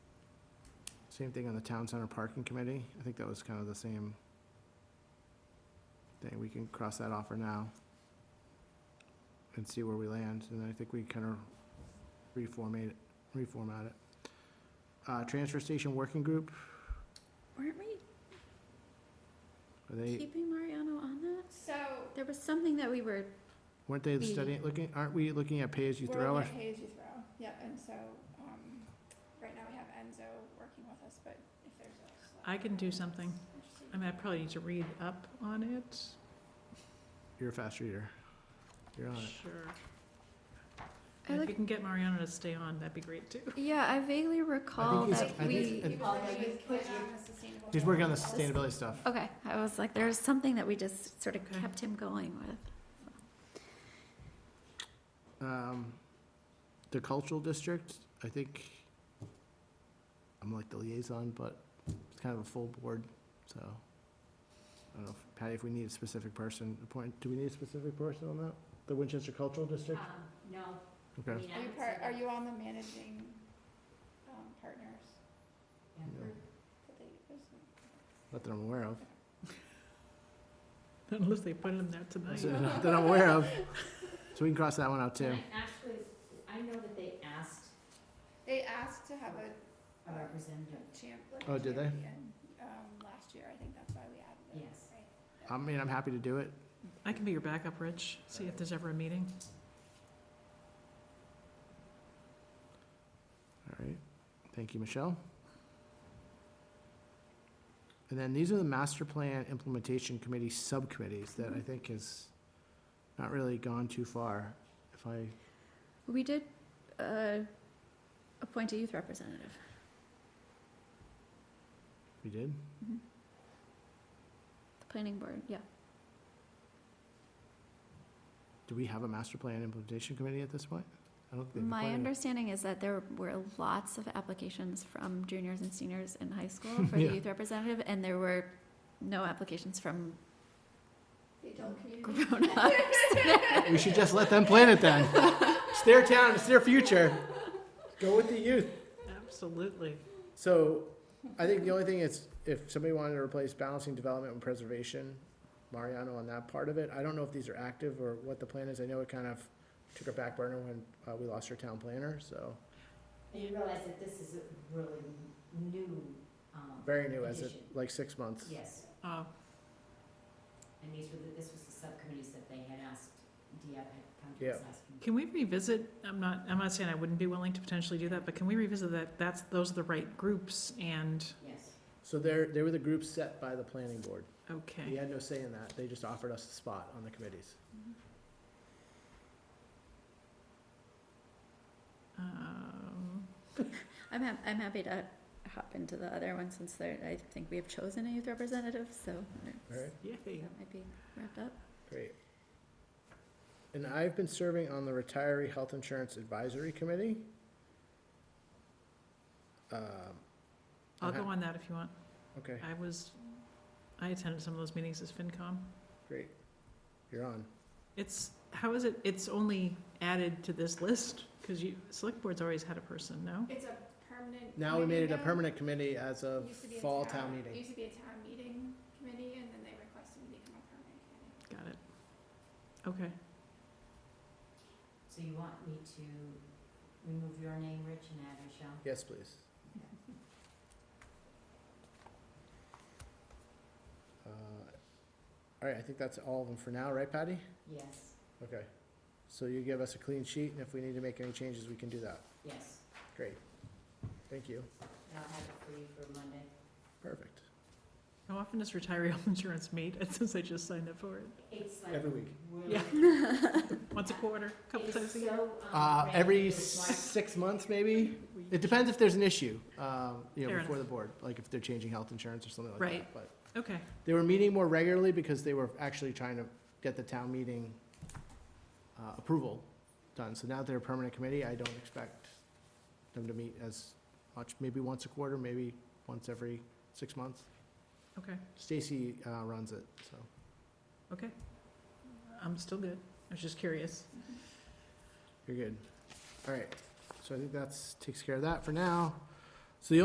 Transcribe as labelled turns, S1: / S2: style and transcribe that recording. S1: Same thing on the Town Center Parking Committee. I think that was kind of the same thing. We can cross that off for now and see where we land, and I think we kind of reformate, it- reformat it. Uh, Transfer Station Working Group,
S2: Weren't we
S1: are they,
S2: keeping Mariano on that?
S3: So,
S2: There was something that we were,
S1: weren't they
S2: We-
S1: studying, looking, aren't we looking at
S3: we're
S1: pay-as-you-throw?
S3: looking at pay as you throw, yep, and so, um, right now we have Enzo working with us, but if there's a. select-
S4: I can do something.
S3: Interesting.
S4: I mean, I probably need to read up on it.
S1: You're a fast reader. You're on it.
S4: Sure.
S2: I
S4: And If you
S2: like,
S4: can get Mariana to stay on, that'd be great too.
S2: yeah, I vaguely recall
S1: he's-
S2: that
S1: I think-
S2: we,
S3: He was
S5: Oh,
S3: working
S5: you
S3: with
S5: put
S3: Ken
S5: your-
S3: on the sustainable
S1: He's working on the
S3: development.
S1: sustainability stuff.
S2: okay, I was like, there was something that we just sort of
S4: Okay.
S2: kept him going with.
S1: Um, The Cultural District, I think, I'm like the liaison, but it's kind of a full board, so. I don't know, if- Patty, if we need a specific person, appoint, do we need a specific person on that? The Winchester Cultural District?
S5: Um, No. I
S1: Okay.
S5: mean, I
S3: Are you
S5: would
S3: part,
S5: say
S3: are
S5: that-
S3: you on the managing, um, partners
S5: yeah.
S1: Yeah.
S3: group that they, was-
S1: Not that I'm aware of.
S4: Unless they put him there tonight.
S1: Not That I'm aware of. So we can cross that one out too.
S5: And I Actually, I know that they asked
S3: they asked to have a
S5: a representative,
S3: champ, like
S1: Oh,
S3: a
S1: did they?
S3: champion, um, last year, I think that's why we added it,
S5: Yes.
S3: right?
S1: I mean, I'm happy to do it.
S4: I can be your backup, Rich, see if there's ever a meeting.
S1: All right, thank you, Michelle. And then these are the master plan implementation committee subcommittees that I think has not really gone too far. If I,
S2: We did, uh, appoint a youth representative.
S1: we did,
S2: The planning board, yeah.
S1: do we have a master plan implementation committee at this point? I don't think. they've
S2: My
S1: appointed it.
S2: understanding is that there were lots of applications from juniors and seniors in high school for the
S1: Yeah.
S2: youth representative, and there were no applications from
S3: The adult community.
S2: grown-ups.
S1: We should just let them plan it then. It's their town, it's their future. Go with the youth.
S4: Absolutely.
S1: So, I think the only thing is, if somebody wanted to replace balancing development and preservation, Mariano on that part of it, I don't know if these are active or what the plan is, I know it kind of took a back burner when, uh, we lost our town planner, so,
S5: and you realize that this is a really new, um,
S1: very new as it,
S5: Addition.
S1: like, six months.
S5: yes,
S4: Oh,
S5: and these were, the- this was the subcommittees that they had asked, DF had come to us asking.
S4: can we revisit, I'm not, I'm not saying I wouldn't be willing to potentially do that, but can we revisit that, that's, those are the right groups and,
S5: Yes,
S1: So they're, they were the group set by the planning board, we
S4: okay.
S1: had no say in that, they just offered us a spot on the committees.
S4: Um,
S2: I'm hap- I'm happy to hop into the other one since there, I think we have chosen a youth representative, so
S1: All right.
S4: Yay.
S2: that might be wrapped up.
S1: Great. And I've been serving on the Retiree Health Insurance Advisory Committee. Um,
S4: I'll
S1: I'm
S4: go
S1: hap-
S4: on that if you want.
S1: Okay,
S4: I was, I attended some of those meetings as FinCom.
S1: great. You're on.
S4: It's, how is it, it's only added to this list? Because you, select board's always had a person, no?
S3: It's a permanent.
S1: Now we made it
S3: committee
S1: a
S3: now.
S1: permanent committee as of
S3: Used to be a
S1: fall town
S3: It
S1: meeting.
S3: used to be a town meeting committee, and then they requested me to become a permanent committee.
S4: Got it. Okay.
S5: so you want me to remove your name, Rich, and add Michelle?
S1: Yes, please. Uh, All right, I think that's all of them for now, right Patty?
S5: Yes,
S1: Okay. So you give us a clean sheet and if we need to make any changes, we can do that.
S5: yes,
S1: Great. Thank you.
S5: and I'll have it for you for Monday.
S1: Perfect.
S4: How often does retiree health insurance meet? Since I just signed up for it.
S5: It's like.
S1: Every week.
S5: really-
S4: Yeah. Once a quarter, couple
S5: It's
S4: times a year?
S5: so, um,
S1: Uh, every
S5: random. It's like-
S1: six months, maybe. It depends if there's an issue, um, you know,
S4: Fair
S1: before the board, like if they're changing health insurance or something like that.
S4: Right.
S1: But
S4: Okay,
S1: they were meeting more regularly because they were actually trying to get the town meeting, uh, approval done. So now that they're a permanent committee, I don't expect them to meet as much, maybe once a quarter, maybe once every six months.
S4: okay,
S1: Stacy, uh, runs it, so.
S4: okay. I'm still good. I was just curious.
S1: You're good. All right, so I think that's, takes care of that for now.